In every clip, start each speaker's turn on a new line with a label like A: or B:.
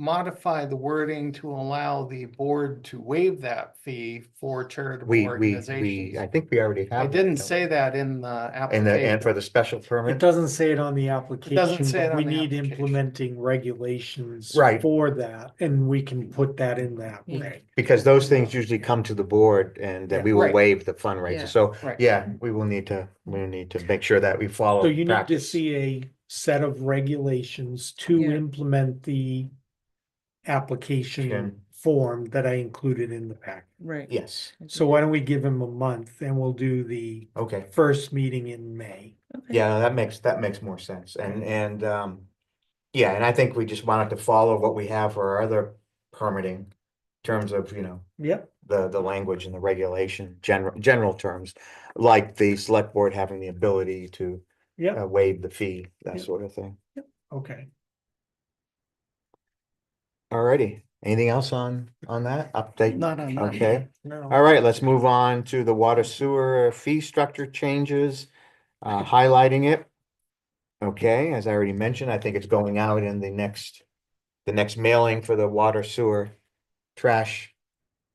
A: modify the wording to allow the board to waive that fee for charitable
B: We, we, we, I
A: organizations.
B: think we already have.
A: I
B: that,
A: didn't
B: don't we?
A: say that in the
B: And the, and
A: application.
B: for the special
C: It
B: permit,
C: doesn't say it on the
A: doesn't
C: application,
A: say it
C: but we
A: on the
C: need
A: application.
C: implementing regulations.
B: Right.
C: For that, and we can put that in that
D: Yeah.
C: way.
B: because those things usually come to the board and then
C: Yeah.
B: we will
A: Right.
B: waive the
D: Yeah.
B: fundraiser. So,
A: Right.
B: yeah, we will need to, we need to make sure that we follow.
C: So you need to
B: practice.
C: see a set of regulations to
D: Yeah.
C: implement the.
B: Sure.
C: Application form that I included in the pack.
D: Right.
B: Yes,
D: I
C: So
D: think-
C: why don't we give him a month and we'll do the
B: okay.
C: first meeting in May?
D: okay.
B: Yeah, that makes, that makes more sense. And, and, um, yeah, and I think we just wanted to follow what we have for our other permitting in terms of, you know,
C: Yep.
B: the, the language and the regulation, general, general terms, like the select board having the ability to
C: Yep,
B: uh, waive the fee, that
C: Yep.
B: sort of thing.
C: okay.
B: Alrighty, anything else on, on that update?
A: Not on that.
B: Okay,
C: No,
B: alright, let's move on to the water sewer fee structure changes, uh, highlighting it. Okay, as I already mentioned, I think it's going out in the next, the next mailing for the water sewer trash,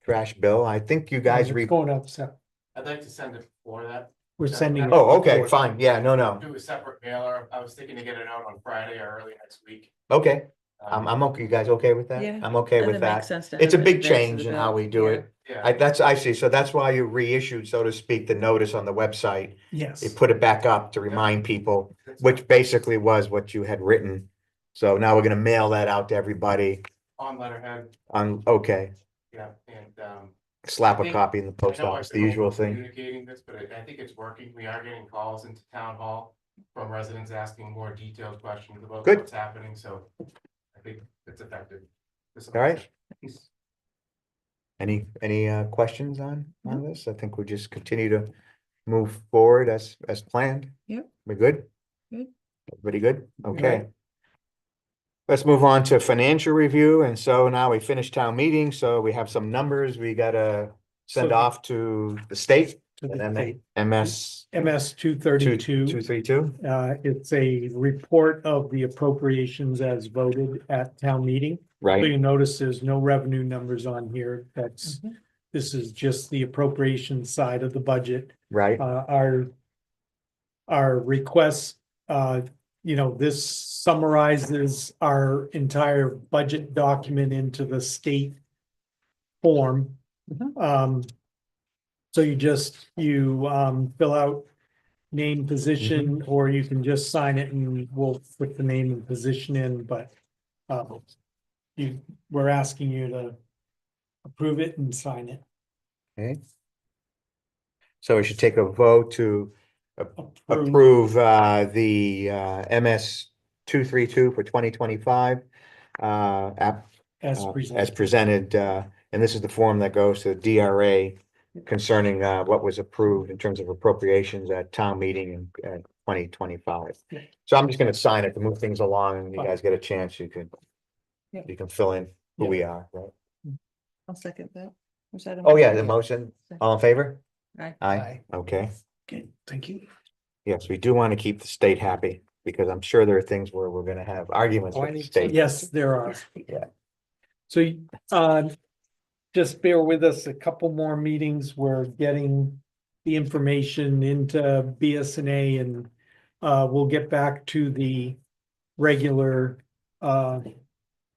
B: trash bill. I think you guys
C: it's
B: read,
C: Going up, so
E: I'd like to send it before that,
C: we're
E: Yeah.
C: sending. it
B: oh, okay,
C: forward.
B: fine, yeah, no, no,
E: do a separate mailer, I was thinking to get it out on Friday or early next week. Um,
B: okay, I'm, I'm okay, you guys okay with that?
D: Yeah,
B: I'm okay
D: And
B: with
D: it makes
B: that.
D: sense to
B: It's a
D: have it
B: big
D: advanced
B: change
D: to
B: in
D: the
B: how
D: bill.
B: we do
D: Yeah.
B: it. I,
E: Yeah,
B: that's, I see, so that's why you reissued, so to speak, the notice on the website,
C: Yes.
B: you put it back up to remind people,
E: that's
B: which basically was what you had written. So now we're gonna mail that out to everybody
E: on letterhead,
B: on, okay,
E: yeah, and, um.
B: slap
E: I
B: a
E: think-
B: copy in the
E: I
B: post
E: know I've
B: office, the
E: been
B: usual thing.
E: Communicating this, but I, I think it's working, we are getting calls into town hall from residents asking more detailed questions about
B: Good.
E: what's happening, so I think it's effective. This-
B: All right. Any, any uh questions on, on this? I think we just continue to move forward as, as planned.
D: Yep.
B: We good?
D: Good.
B: Everybody good? Okay. Let's move on to financial review, and so now we finished town meeting, so we have some numbers we gotta send
C: So-
B: off to the state.
C: To the
B: and
C: state.
B: then MS
C: MS two
B: two,
C: thirty-two.
B: two, three, two,
C: Uh, it's a report of the appropriations as voted at town meeting. So
B: right?
C: you notice there's no revenue numbers on here. That's,
D: Mhm.
C: this is just the appropriation side of the budget.
B: Right,
C: Uh, our, our requests, uh, you know, this summarizes our entire budget document into the state form. Um, so you just, you, um, fill out name, position, or you can just sign it and we'll put the name and position in, but um, you, we're asking you to approve it and sign it.
B: okay. So we should take a vote to
C: Approve.
B: approve uh the uh MS two, three, two for twenty twenty-five. Uh, app,
C: Oh, As
B: uh, as
C: presented.
B: presented, uh, and this is the form that goes to the DRA concerning, uh, what was approved in terms of appropriations at town meeting in, uh, twenty twenty-five.
C: Yeah.
B: So I'm just gonna sign it to move things along and you
C: Fine.
B: guys get a chance, you can,
D: Yeah.
B: you can fill in who
C: Yeah.
B: we are, right?
D: I'll second that. Was that a
B: Oh, yeah, the
D: motion?
B: motion,
D: Second.
B: all in favor?
D: Aye.
B: Aye, okay.
C: Okay, thank you.
B: Yes, we do want to keep the state happy because I'm sure there are things where we're gonna have arguments with the
A: Pointing to-
B: state.
C: Yes, there are.
B: Yeah.
C: So, uh, just bear with us a couple more meetings. We're getting the information into BSNA and uh, we'll get back to the regular uh,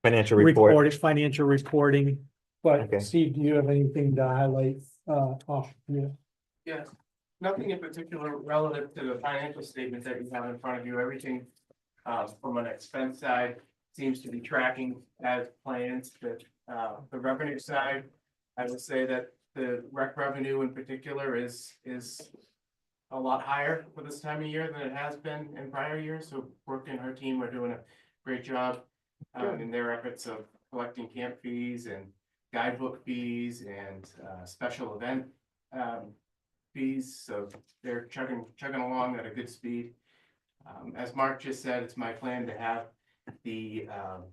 B: Financial report,
C: report, financial reporting.
B: Okay.
C: But Steve, do you have anything to highlight uh, off? yeah.
E: Yes, nothing in particular relative to the financial statement that you have in front of you, everything uh, from an expense side seems to be tracking as plans, but uh, the revenue side, I would say that the rec revenue in particular is, is a lot higher for this time of year than it has been in prior years, so Brooke and her team are doing a great job um, in their efforts of collecting camp fees and guidebook fees and uh, special event um, fees, so they're chugging, chugging along at a good speed. Um, as Mark just said, it's my plan to have the, um,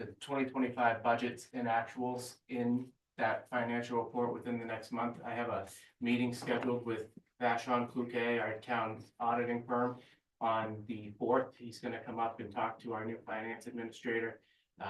E: the twenty twenty-five budgets and actuals in that financial report within the next month. I have a meeting scheduled with Vashon Cloutier, our town auditing firm, on the fourth. He's gonna come up and talk to our new finance administrator